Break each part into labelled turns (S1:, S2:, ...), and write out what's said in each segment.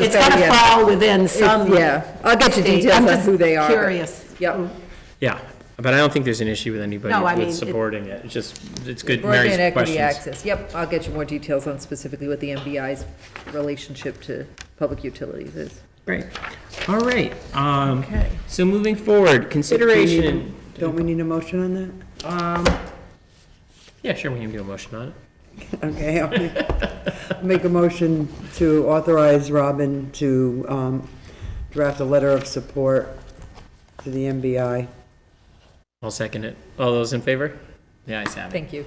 S1: It's got to
S2: Yeah.
S1: fall within
S2: It's-
S1: some.
S2: Yeah, I'll get you
S1: state.
S2: details
S1: I'm
S2: on
S1: just
S2: who they are. but-
S1: Curious. Mm.
S2: Yep.
S3: Yeah, but I don't think there's an issue with anybody
S1: No, I mean,
S3: with
S1: it-
S3: supporting it. It's just, it's good, Mary's
S2: Broadband equity
S3: questions.
S2: access, yep, I'll get you more details on specifically what the MBI's relationship to public utilities is.
S3: Great. All right, um,
S2: Okay.
S3: so moving forward, consideration,
S4: Don't we need a motion on that?
S3: yeah, sure, we can do a motion on it.
S4: Okay, I'll make- make a motion to authorize Robin to um, draft a letter of support to the MBI.
S3: I'll second it. All those in favor? The ayes have it.
S2: Thank you.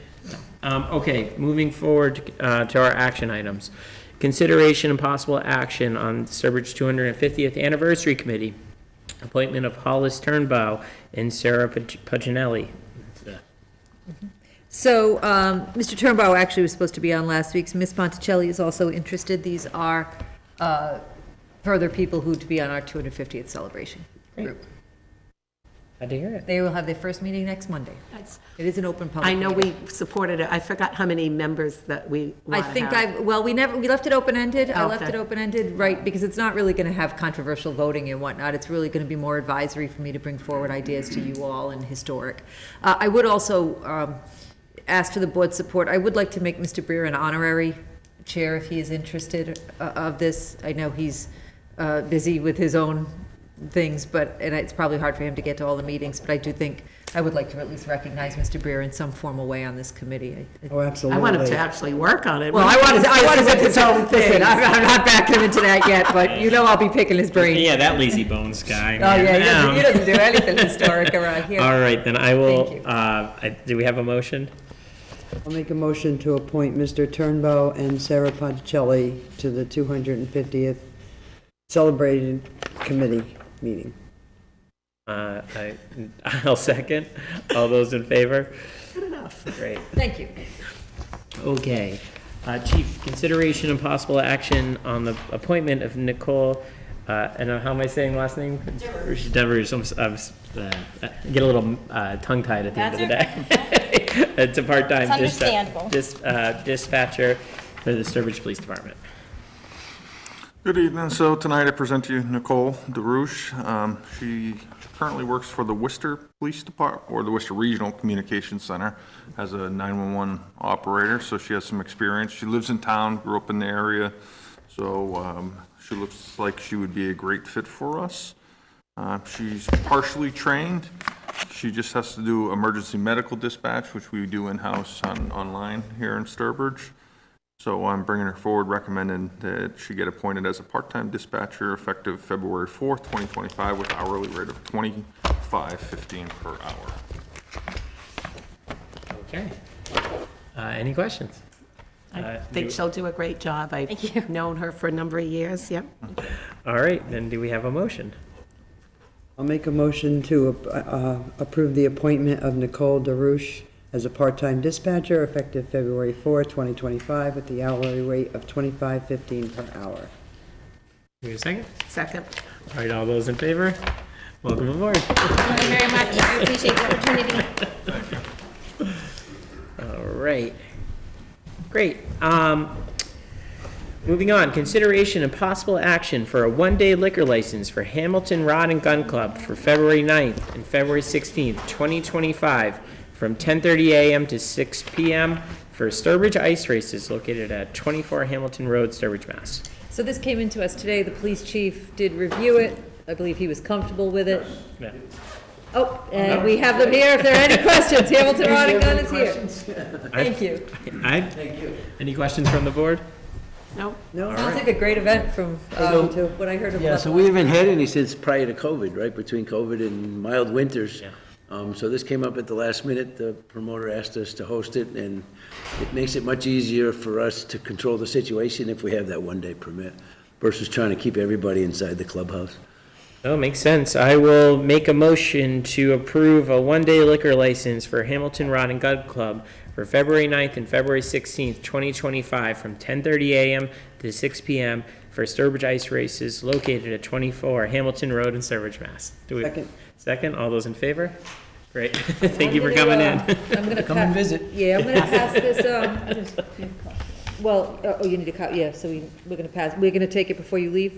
S3: Um, okay, moving forward, uh, to our action items. Consideration and possible action on Sturbridge two hundred and fiftieth Anniversary Committee. Appointment of Hollis Turnbow and Sarah Pag- Paginelli.
S2: So, um, Mr. Turnbow actually was supposed to be on last week's, Ms. Ponticelli is also interested, these are, uh, further people who to be on our 250th celebration group.
S3: Glad to hear it.
S2: They will have their first meeting next Monday.
S1: That's-
S2: It is an open public.
S1: I know
S2: meeting.
S1: we supported it. I forgot how many members that we
S2: I
S1: want to
S2: think
S1: have.
S2: I, well, we never, we left it open-ended, I left
S1: Okay.
S2: it open-ended, right, because it's not really gonna have controversial voting and whatnot, it's really gonna be more advisory for me to bring forward ideas to you all and historic. Uh, I would also, um, ask for the board's support, I would like to make Mr. Breer an honorary chair if he is interested uh, of this, I know he's, uh, busy with his own things, but, and it's probably hard for him to get to all the meetings, but I do think, I would like to at least recognize Mr. Breer in some formal way on this committee. I- I
S4: Oh, absolutely.
S1: I want him to actually work on it.
S2: well, I want to, I want to
S1: This
S2: pick
S1: is
S2: his own thing. I'm, I'm not backing into that yet, but you know I'll be picking his brain.
S3: Yeah, that lazy bones guy.
S2: Oh, yeah, he doesn't, he doesn't do anything historic around here.
S3: All right, then I
S2: Thank
S3: will,
S2: you.
S3: uh, I- do we have a motion?
S4: I'll make a motion to appoint Mr. Turnbow and Sarah Ponticelli to the 250th Celebrated Committee meeting.
S3: Uh, I, I'll second. All those in favor? Good enough. Great.
S2: Thank you.
S3: Okay. Uh, Chief, consideration and possible action on the appointment of Nicole, uh, and how am I saying last name? Devers. Devers, I'm, s- I'm s- uh, I get a little uh, tongue-tied at the end of the day. It's a part-time
S5: It's
S3: dispa-
S5: understandable.
S3: dis- uh, dispatcher for the Sturbridge Police Department.
S6: Good evening. So tonight I present to you Nicole DeRouche. Um, She currently works for the Worcester Police Department, or the Worcester Regional Communications Center, as a 911 operator, so she has some experience. She lives in town, grew up in the area, so um, she looks like she would be a great fit for us. Uh, She's partially trained. She just has to do emergency medical dispatch, which we do in-house on, online here in Sturbridge. So I'm bringing her forward, recommending that she get appointed as a part-time dispatcher effective February 4th, 2025, with hourly rate of 25.15 per hour.
S3: Okay. Uh, Any questions?
S1: I
S3: Uh,
S1: think she'll do a great job. I've known her for a number of years, yep.
S3: All right, then do we have a motion?
S4: I'll make a motion to uh, approve the appointment of Nicole DeRouche as a part-time dispatcher effective February 4, 2025, at the hourly rate of 25.15 per hour.
S3: Do we have a second?
S1: Second.
S3: All right, all those in favor? Welcome aboard.
S5: Thank you very much. I appreciate the opportunity.
S3: All right. Great. Um, Moving on, consideration and possible action for a one-day liquor license for Hamilton Rod and Gun Club for February 9th and February 16th, 2025, from 10:30 a.m. to 6 p.m. for Sturbridge Ice Races located at 24 Hamilton Road, Sturbridge, Mass.
S2: So this came into us today, the police chief did review it, I believe he was comfortable with it.
S3: Yeah.
S2: Oh, and we have them here if there are any questions, Hamilton Rod and Gun is here. Thank you.
S3: Aye? Thank you. Any questions from the board?
S1: No,
S2: Sounds like a great event from, uh, what I heard of.
S7: Yeah, so we haven't had any since prior to COVID, right, between COVID and mild winters. Um, so this came up at the last minute, the promoter asked us to host it, and it makes it much easier for us to control the situation if we have that one-day permit versus trying to keep everybody inside the clubhouse.
S3: Oh, makes sense. I will make a motion to approve a one-day liquor license for Hamilton Rod and Gun Club for February 9th and February 16th, 2025, from 10:30 a.m. to 6 p.m. for Sturbridge Ice Races located at 24 Hamilton Road in Sturbridge, Mass. Do we-
S4: Second.
S3: Second, all those in favor? Great. Thank you for coming in.
S2: I'm gonna. Come and visit. Yeah, I'm gonna pass this, uh, um, well, oh, you need a copy, yeah, so we, we're gonna pass, we're gonna take it before you leave,